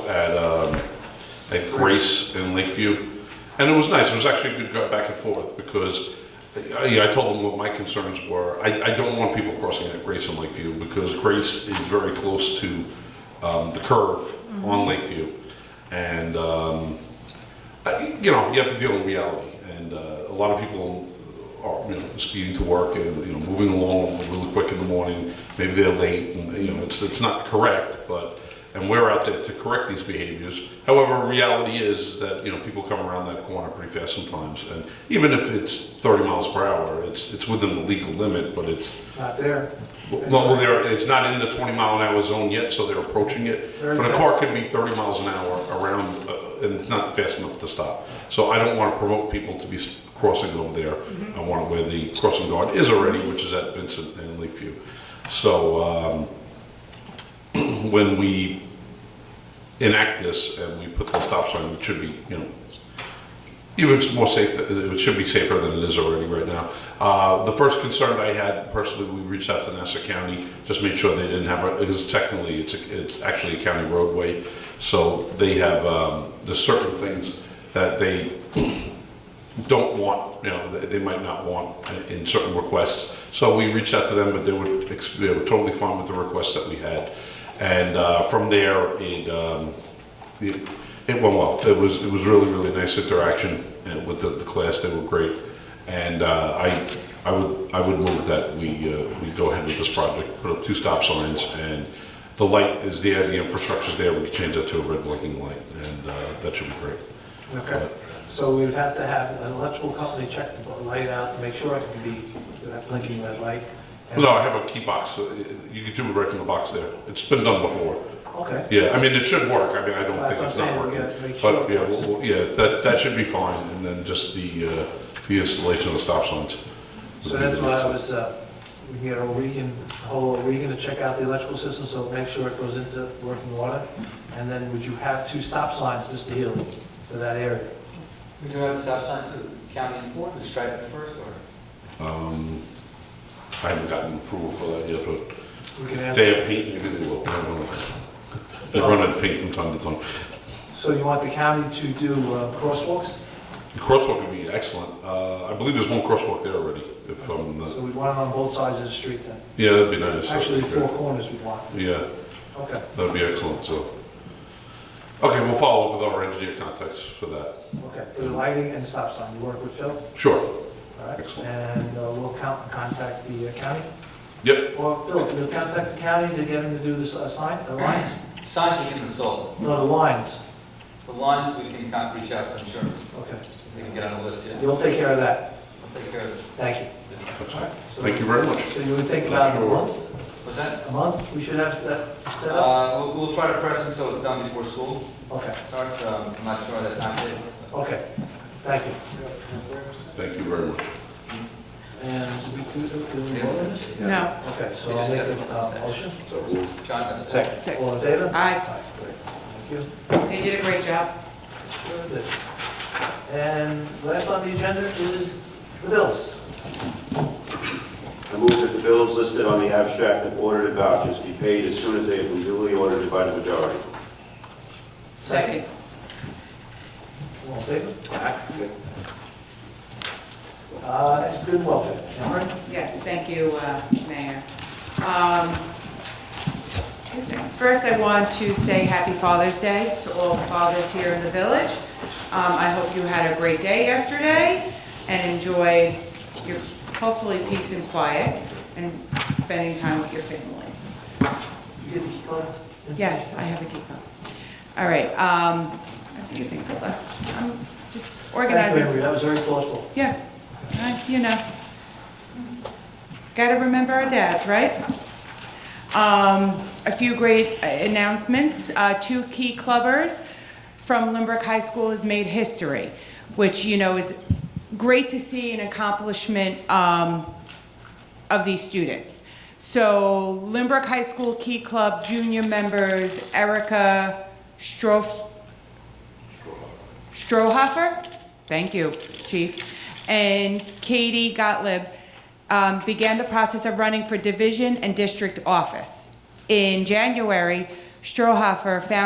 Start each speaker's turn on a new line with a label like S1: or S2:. S1: at, um, at Grace in Lakeview. And it was nice, it was actually a good go back and forth, because uh, I, I told them what my concerns were. I, I don't want people crossing at Grace in Lakeview, because Grace is very close to, um, the curve on Lakeview. And, um, I- you know, you have to deal with reality, and uh, a lot of people are, you know, speeding to work and, you know, moving along really quick in the morning, maybe they're late, and, you know, it's, it's not correct, but, and we're out there to correct these behaviors. However, reality is that, you know, people come around that corner pretty fast sometimes, and even if it's 30 miles per hour, it's, it's within the legal limit, but it's,
S2: Not there.
S1: well, well, they're, it's not in the 20 mile an hour zone yet, so they're approaching it.
S2: Very
S1: But a
S2: fast.
S1: car could be 30 miles an hour around, uh, and it's not fast enough to stop. So I don't want to promote people to be s- crossing over there.
S2: Mm-hmm.
S1: I want it where the crossing guard is already, which is at Vincent and Lakeview. So um, when we enact this and we put the stop sign, it should be, you know, even it's more safe, it should be safer than it is already right now. Uh, The first concern I had personally, we reached out to Nassau County, just made sure they didn't have, a- because technically, it's, a- it's actually a county roadway. So they have, um, there's certain things that they don't want, you know, they they might not want in certain requests. So we reached out to them, but they were, ex- they were totally fine with the requests that we had. And uh, from there, it, um, it it went well. It was, it was really, really nice interaction uh, with the, the class. They were great. And uh, I, I would, I would move that we, uh, we go ahead with this project, put up two stop signs, and the light is there, the infrastructure's there, we can change that to a red blinking light, and uh, that should be great.
S2: Okay. So we'd have to have an electrical company check the light out to make sure it can be, that blinking red light. And-
S1: No, I have a key box, so it- you could do it right from the box there. It's been done before.
S2: Okay.
S1: Yeah, I mean, it should work, I mean, I don't
S2: That's
S1: think it's
S2: what I'm
S1: not
S2: saying, we
S1: working.
S2: gotta make
S1: But,
S2: sure.
S1: yeah, we'll- we'll- yeah, that, that should be fine, and then just the, uh, the installation of the stop signs.
S2: So that's why I was, uh, we can get O'Regan, whole O'Regan to check out the electrical system, so make sure it goes into working order. And then would you have two stop signs, Mr. Healy, for that area?
S3: We do have stop signs to county important, stripe it first, or?
S1: Um, I haven't gotten approval for that yet, but
S2: We can
S1: if
S2: ask,
S1: they have paint, maybe they will, I don't know. They run out of paint from time to time.
S2: so you want the county to do uh, crosswalks?
S1: The crosswalk would be excellent, uh, I believe there's one crosswalk there already, if I'm
S2: So
S1: not,
S2: we want it on both sides of the street then?
S1: yeah, that'd be nice.
S2: Actually, four corners we want.
S1: Yeah.
S2: Okay.
S1: That'd be excellent, so. Okay, we'll follow up with our engineer contacts for that.
S2: Okay, the lighting and the stop sign, you work with Phil, all
S1: Sure,
S2: right?
S1: Excellent.
S2: And uh, we'll count, contact the uh, county,
S1: yep,
S2: or Phil, you'll contact the county to get him to do the s- sign, the lines?
S3: Signs we can install.
S2: No, the lines,
S3: The lines we can con- reach out to insurance.
S2: okay.
S3: We can get on the list, yeah.
S2: You'll take care of that,
S3: We'll take care of it.
S2: thank you. So-
S1: thank you very much.
S2: So you would think about a
S1: Sure.
S2: month,
S3: What's that?
S2: a month, we should have that set up?
S3: Uh, we'll, we'll try to press it so it's done before school
S2: Okay,
S3: starts. Um, I'm not sure of that time yet.
S2: okay, thank you.
S1: Thank you very much.
S2: And we can, do we vote on this?
S4: No,
S2: Okay, so I'll make the uh, motion,
S1: So we'll-
S3: John, that's.
S4: sick.
S2: all in favor?
S4: Aye,
S2: Aye, great, thank you.
S4: they did a great job.
S2: Good. And last on the agenda is the bills.
S5: I move that the bills listed on the abstract of audited vouchers be paid as soon as they have been duly audited by the majority.
S4: Second.
S2: All in favor? Uh, Next, good and welfare. Cameron?
S4: Yes, thank you, uh, Mayor. Um, two things. First, I want to say Happy Father's Day to all the fathers here in the village. Um, I hope you had a great day yesterday and enjoyed your, hopefully, peace and quiet and spending time with your families.
S2: You get the key card?
S4: Yes, I have a key fob. All right, um, I have a few things, hold on. I'm just
S2: Thank you,
S4: organizing.
S2: Henry, that was very thoughtful.
S4: Yes, I- you know. Got to remember our dads, right? Um, A few great uh, announcements. Uh, Two key clubbers from Lynbrook High School has made history, which, you know, is great to see an accomplishment um, of these students. So Lynbrook High School Key Club junior members Erica Strof, Strohoffer, thank you, Chief, and Katie Gottlieb um, began the process of running for division and district office. In January, Strohoffer found